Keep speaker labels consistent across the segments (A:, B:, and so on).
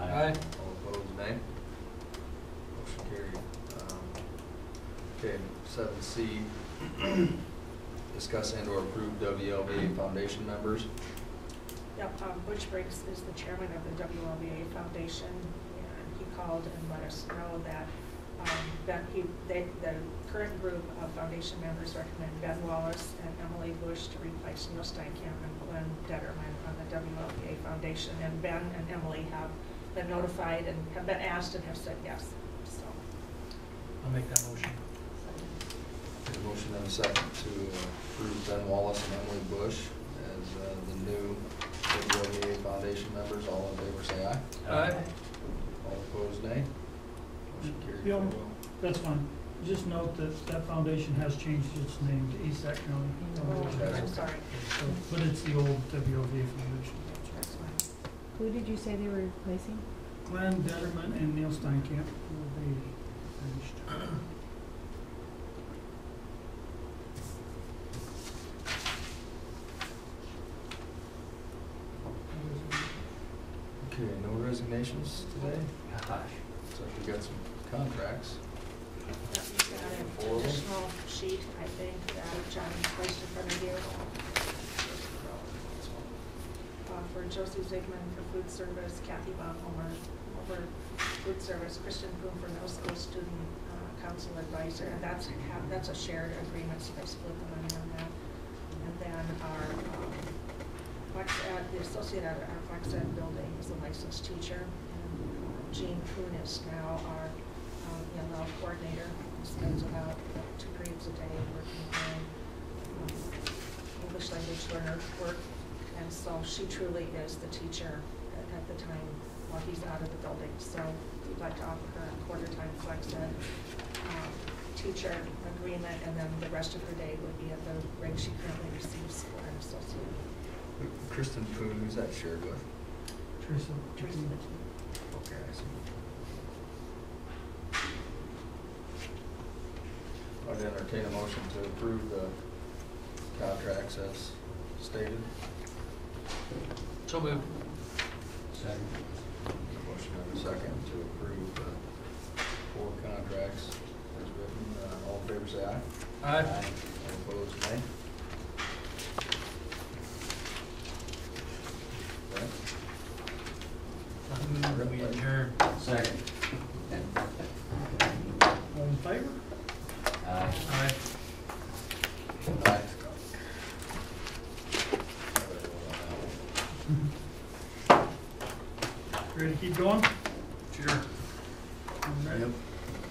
A: Aye.
B: All opposed, nay. Motion carried. Um, Okay, seven C, discuss and or approve WLBA foundation members.
C: Yep, um, Butch Briggs is the chairman of the WLBA Foundation, and he called and let us know that, um, that he, they, the current group of foundation members recommend Ben Wallace and Emily Bush to replace Neil Steinkamp and Glenn Detterman on the WLBA Foundation. And Ben and Emily have been notified and have been asked and have said yes, so.
A: I'll make that motion.
B: There's a motion and a second to approve Ben Wallace and Emily Bush as uh, the new WLBA foundation members. All in favor, say aye.
A: Aye.
B: All opposed, nay. Motion carried.
D: Yeah.
B: Very well.
D: That's fine. Just note that that foundation has changed its name to ESAC County
C: Oh,
D: Foundation.
C: I'm sorry.
D: So, But it's the old WOV foundation.
C: That's fine.
E: Who did you say they were replacing?
D: Glenn Detterman and Neil Steinkamp will be finished.
B: Okay, no resignations today? So we got some contracts.
C: Yep, he's got an additional sheet, I think, that John placed in front of you. uh, for Josie Zigman for food service, Kathy Von Homer for food service, Kristen Boom for middle school student uh, council advisor, and that's, ha- that's a shared agreement, so they split the money on that. And then our, um, Flex Ed, the associate at our Flex Ed building is a licensed teacher. and uh, Jean Kuhn is now our um, ELL coordinator, spends about two periods a day working on um, English language learner work, and so she truly is the teacher at at the time while he's out of the building. So we'd like to offer her a quarter-time flex ed um, teacher agreement, and then the rest of her day would be at the rate she currently receives for an associate.
B: Kristen Poon, who's that shared with?
D: Teresa.
C: Teresa Mitchell.
B: Okay, I see. I'd entertain a motion to approve the contracts as stated.
A: So moved.
B: Second. Motion and a second to approve the four contracts as written. Uh, All in favor, say aye.
A: Aye.
B: All opposed, nay. Okay.
A: I move we adjourn.
F: Second.
D: All in favor?
F: Aye.
A: Aye.
B: Aye.
D: Ready to keep going?
A: Sure.
D: All right.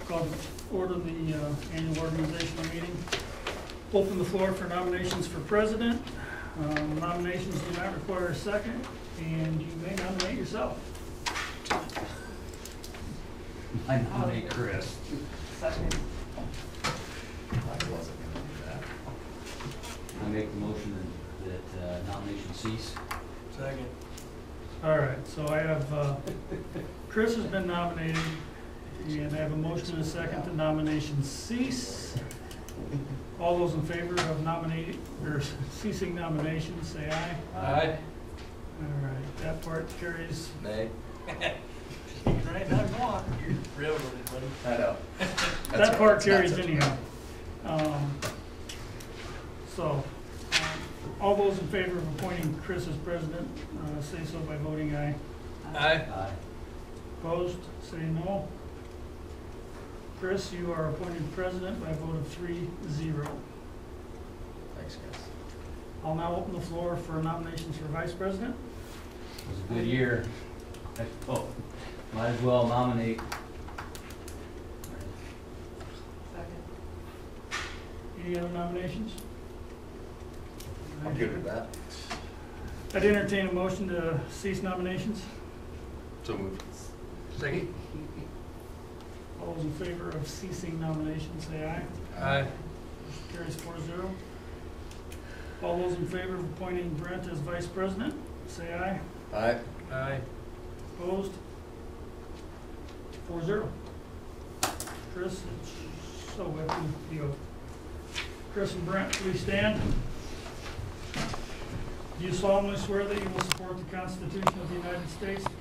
D: Call to order the uh, annual organizational meeting. Open the floor for nominations for president. Um, Nominations do not require a second, and you may nominate yourself.
F: I nominate Chris.
B: I wasn't gonna do that.
F: I make the motion that uh, nomination cease.
A: Second.
D: All right, so I have, uh, Chris has been nominated, and I have a motion and a second to nomination cease. All those in favor of nominating, or ceasing nominations, say aye.
A: Aye.
D: All right, that part carries.
B: Nay?
D: Right, not wrong.
A: Railroaded, buddy.
B: I know. That's
D: That
B: right,
D: part
B: it's not
D: carries
B: such a
D: anyhow. Um, So, um, all those in favor of appointing Chris as president, uh, say so by voting aye.
A: Aye.
F: Aye.
D: Opposed, say no. Chris, you are appointed president by a vote of three zero.
B: Thanks, guys.
D: I'll now open the floor for nominations for vice president.
F: It was a good year. Oh, might as well nominate.
C: Second.
D: Any other nominations?
B: I'm good with that.
D: I'd entertain a motion to cease nominations.
B: So moved.
A: Second.
D: All those in favor of ceasing nominations, say aye.
A: Aye.
D: Carries four zero. All those in favor of appointing Brent as vice president, say aye.
B: Aye.
A: Aye.
D: Opposed? Four zero. Chris, it's so happy you. go. Chris and Brent, please stand. Do you solemnly swear that you will support the Constitution of the United States,